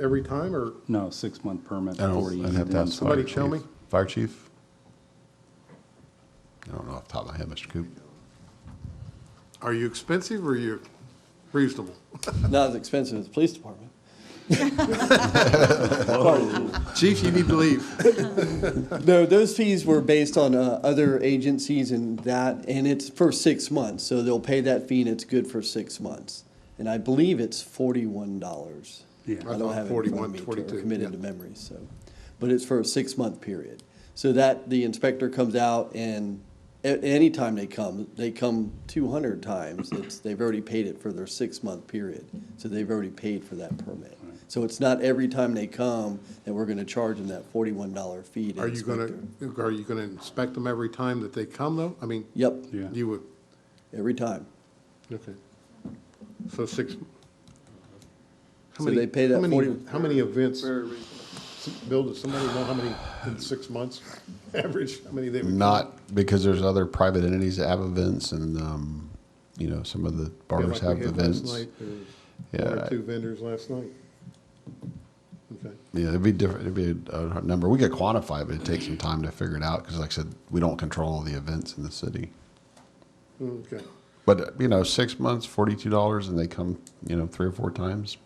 every time, or No, six-month permit, I 40. don't, I'd have to ask. the Somebody fire tell chief. me. Fire chief? I don't know off the top of my head, Mr. Coop. are you expensive or are you reasonable? Not as expensive as the police department. Pardon. Chief, you need to leave. No, those fees were based on uh, other agencies and that, and it's for six months. So they'll pay that fee and it's good for six months. And I believe it's forty-one dollars. Yeah. I don't I have it thought in front of me 41, to- 42, committed yeah. to memory, so. But it's for a six-month period. So that, the inspector comes out and a- anytime they come, they come two hundred times, it's, they've already paid it for their six-month period. So they've already paid for that permit. So it's not every time they come that we're gonna charge them that forty-one dollar fee to Are you gonna, inspector. are you gonna inspect them every time that they come, though? I mean, Yep, Yeah. you would, every time. okay. So six. how So many- they pay that how many- 40 How many events, Bill, does somebody know how many in six months, average, how many they would? Not because there's other private entities that have events and, um, you know, some of the Yeah, barbers like we have had last events. night, there was One Yeah, or I- two vendors last night. Okay. Yeah, it'd be different. It'd be a, a number. We could quantify it, but it takes some time to figure it out because, like I said, we don't control the events in the city. Okay. But, uh, you know, six months, $42, and they come, you know, three or four times.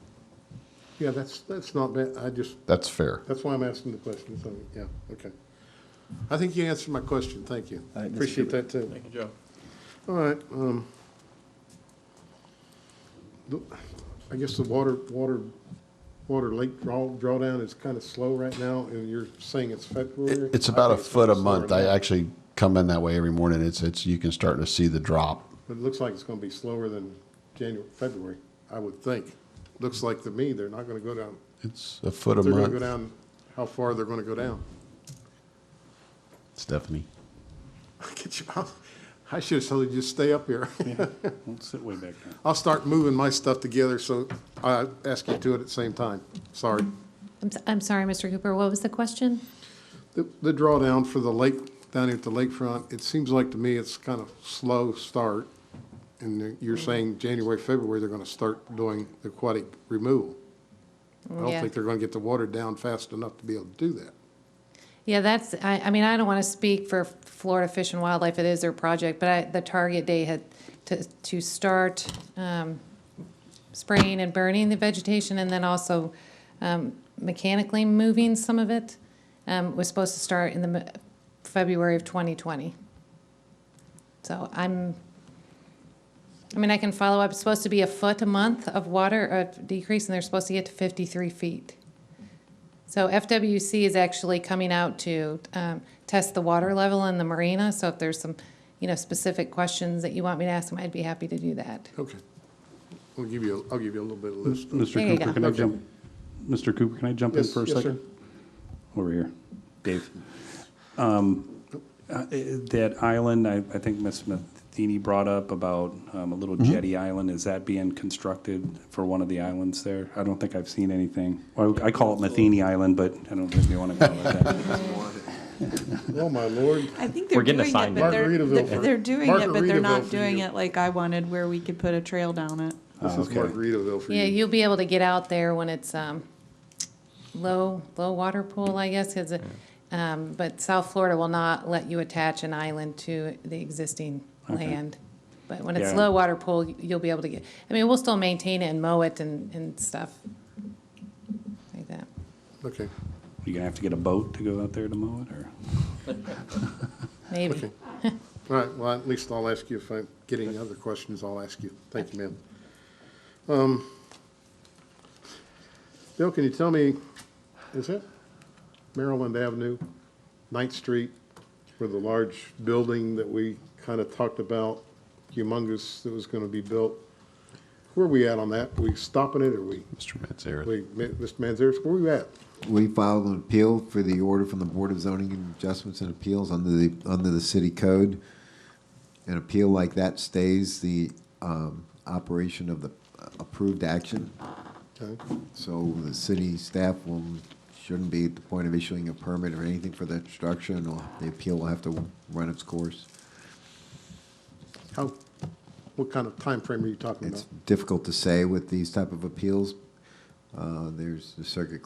Yeah, that's, that's not bad. I just, That's fair. that's why I'm asking the question, so, yeah, okay. I think you answered my question, thank you. All right, Mr. Appreciate Cooper. that, too. Thank you, Joe. All right, um, the- I guess the water, water, water lake draw, drawdown is kind of slow right now, and you're saying it's February? It, it's I about a think foot a gonna be slower month. than I that, actually come in that way every morning. It's, it's, you can start to see the drop. But it looks like it's gonna be slower than January, February, I would think. Looks like to me, they're not gonna go down, It's a foot a they're gonna go month. down, how far they're gonna go down. Stephanie. Get you out. I should have told you, just stay up here. Don't sit way back there. I'll start moving my stuff together, so I ask you to do it at the same time. Sorry. I'm, s- I'm sorry, Mr. Cooper, what was the question? The the drawdown for the lake, down here at the lakefront, it seems like to me it's kind of slow start. And you're saying January, February, they're going to start doing the aquatic removal. I don't Yeah. think they're going to get the water down fast enough to be able to do that. Yeah, that's, I, I mean, I don't want to speak for Florida Fish and Wildlife, it is their project, but I, the target day had to, to start, um, spraying and burning the vegetation and then also, um, mechanically moving some of it, um, was supposed to start in the m- February of twenty twenty. So I'm, I mean, I can follow up, it's supposed to be a foot a month of water, of decrease, and they're supposed to get to fifty-three feet. So FWC is actually coming out to um, test the water level in the marina. So if there's some, you know, specific questions that you want me to ask them, I'd be happy to do that. Okay. I'll give you, I'll give you a little bit of list. Mr. There you Cooper, go. can I Okay. jump, Mr. Cooper, can I jump in Yes, for a yes, second? Over here, Dave. Um, uh, eh, That island, I, I think Ms. Matheny brought up about um, a little jetty island, is that being constructed for one of the islands there? I don't think I've seen anything. Well, I call it Matheny Island, but I don't think they want to call it that. Oh, my lord. I think We're they're getting doing a sign it, but they're, Margaritaville they're for- they're doing it, but they're Margaritaville not for doing you. it like I wanted where we could put a trail down it. This is okay. Margaritaville for Yeah, you. you'll be able to get out there when it's um, low, low water pool, I guess, is it? Um, But South Florida will not let you attach an island to the existing land. But when it's Yeah. low water pool, you'll be able to get, I mean, we'll still maintain it and mow it and, and stuff like that. Okay. You're gonna have to get a boat to go out there to mow it, or? Maybe. All right, well, at least I'll ask you if I get any other questions, I'll ask you. Thank you, ma'am. Um, Bill, can you tell me, is it Maryland Avenue, Ninth Street, where the large building that we kind of talked about, humongous, that was going to be built? Where are we at on that? We stopping it, or we, Mr. Manzarek. we, Mr. Manzares, where are we at? We filed an appeal for the order from the Board of Zoning and Adjustments and Appeals under the, under the city code. An appeal like that stays the um, operation of the approved action, Okay. so the city staff will, shouldn't be at the point of issuing a permit or anything for that structure, and the appeal will have to run its course. How, what kind of time frame are you talking about? It's difficult to say with these type of appeals. Uh, There's the circuit